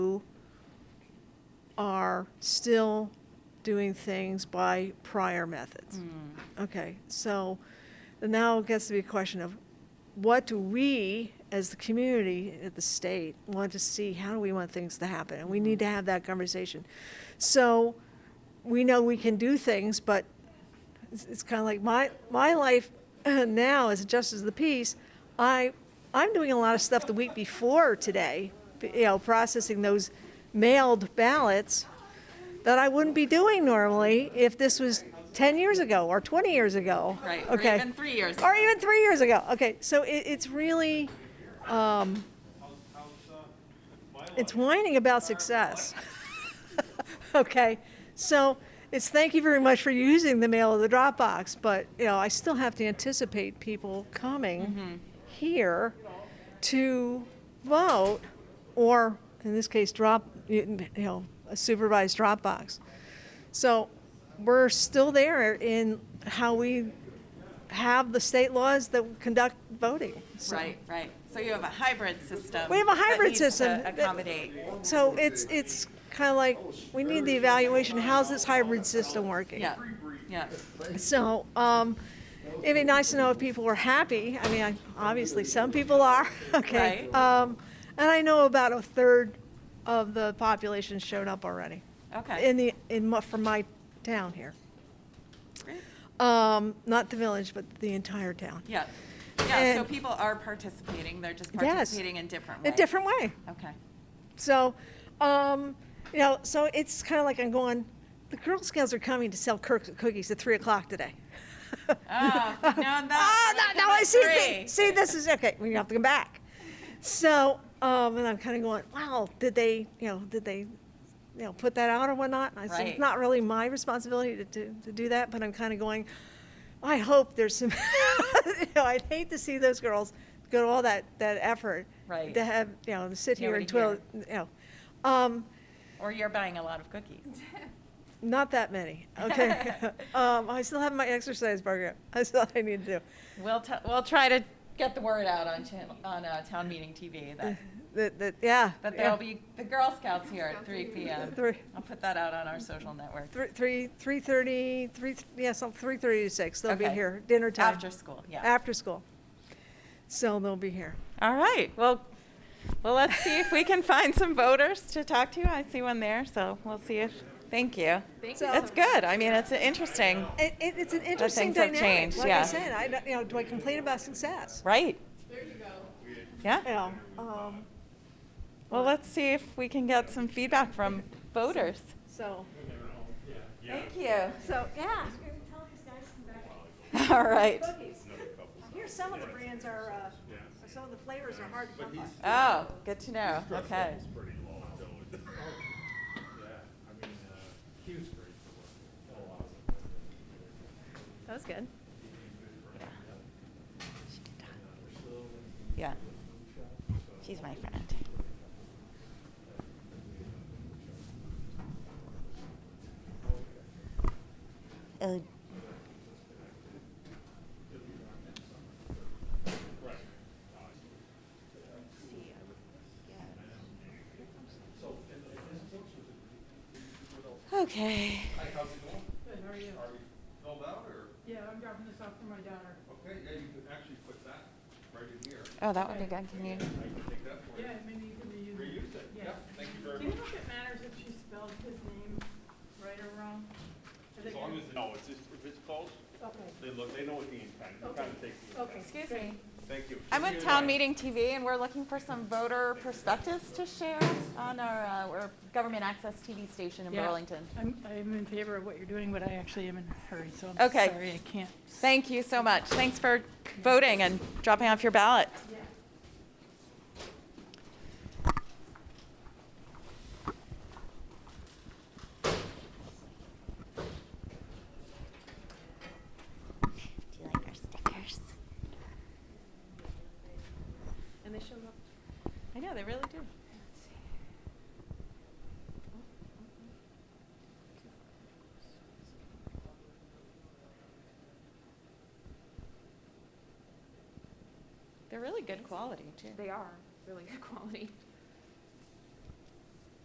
who are still doing things by prior methods. Mm. Okay, so now it gets to be a question of what do we, as the community, at the state, want to see? How do we want things to happen? And we need to have that conversation. So we know we can do things, but it's, it's kind of like my my life now as just as the piece. I I'm doing a lot of stuff the week before today. You know, processing those mailed ballots that I wouldn't be doing normally if this was 10 years ago or 20 years ago. Right, or Okay. even three years Or ago. even three years ago. Okay. So it, it's really, um, it's whining about success. okay. So it's thank you very much for using the mail of the Dropbox, but you know I still have to anticipate people coming Mm-hmm. here to vote, or in this case, drop you know a supervised Dropbox. So we're still there in how we have the state laws that conduct voting. So- Right, right. So you have a hybrid system. We have a that hybrid needs to system that- accommodate. So it's it's kind of like we need the evaluation. How's this hybrid system working? Yeah, yeah. So um, it'd be nice to know if people were happy. I mean, I, obviously some people are. Okay. Right. Um, and I know about a third of the population showed up already Okay. in the in mu- from my town here. Great. Um, not the village, but the entire town. Yeah. Yeah, so And- people are participating. They're just Yes. participating in different A ways. different way. Okay. So, um, you know, so it's kind of like I'm going, the Girl Scouts are coming to sell cur- cookies at 3 o'clock today. Oh, Ah, if we'd known Ah, that, we'd have now come I at see. thi- three. see, this is okay. We have to come back. So, um, and I'm kind of going, wow, did they, you know, did they, you know, put that out or whatnot? I said, it's Right. not really my responsibility to, to, to do that, but I'm kind of going, I hope there's some, you know, I'd hate to see those girls go to all that, that effort Right. to have, you know, to sit here Nobody and twill, you know. Um, Or you're buying a lot of cookies. not that many, okay? um, I still have my exercise program. I still I need to do. We'll, t- we'll try to get the word out on channel, on, uh, town meeting TV that, That, that, yeah. that yeah. there'll be the Girl Scouts here at three PM. Three- I'll put that out on our social network. Three, three, three thirty, three, yeah, some, three thirty to six, they'll be Okay. here, dinner time. After school, yeah. After school. So they'll be here. All right. Well, well, let's see if we can find some voters to talk to. I see one there, so we'll see if. Thank you. Thank you. That's good. I mean, it's interesting, It, it, it's an interesting things have dynamic, changed, like I yeah. said, I, don't- you know, do I complain about success? right? There you go. You Yeah. know, um, Well, let's see if we can get some feedback from voters. so, Thank you. so, yeah. All right. Here's some of the brands are, uh, some of the flavors are hard to come by. Oh, good to know. Okay. pretty low, so it's. Yeah, I mean, uh, he was great for work. Oh, awesome. That was good. Yeah. She's my friend. Oh, Okay. Are you filled out or? Yeah, I'm dropping this off for my daughter. Okay, yeah, you can actually put that right in here. Oh, that would be good. Can you? I can take that for you. Yeah, maybe you can reuse it. Reuse it. Yeah. Yep, thank you very Do you much. know if it matters if she spelled his name right or wrong? I As think- long as, no, it's just, if it's close, Okay, they look, they know what the intent, you Okay. kind of take the okay. intent. Excuse me. Thank you. I'm with Appreciate Town it. Meeting TV, and we're looking for some voter perspectives to share on our, uh, our government access TV station in Yeah. Burlington. I'm, I'm in favor of what you're doing, but I actually am in a hurry, so I'm Okay. sorry, I can't. Thank you so much. Thanks for voting and dropping off your ballot. do you like our stickers? And they show up. I know, they really do. They're really good quality, too. They are really good quality.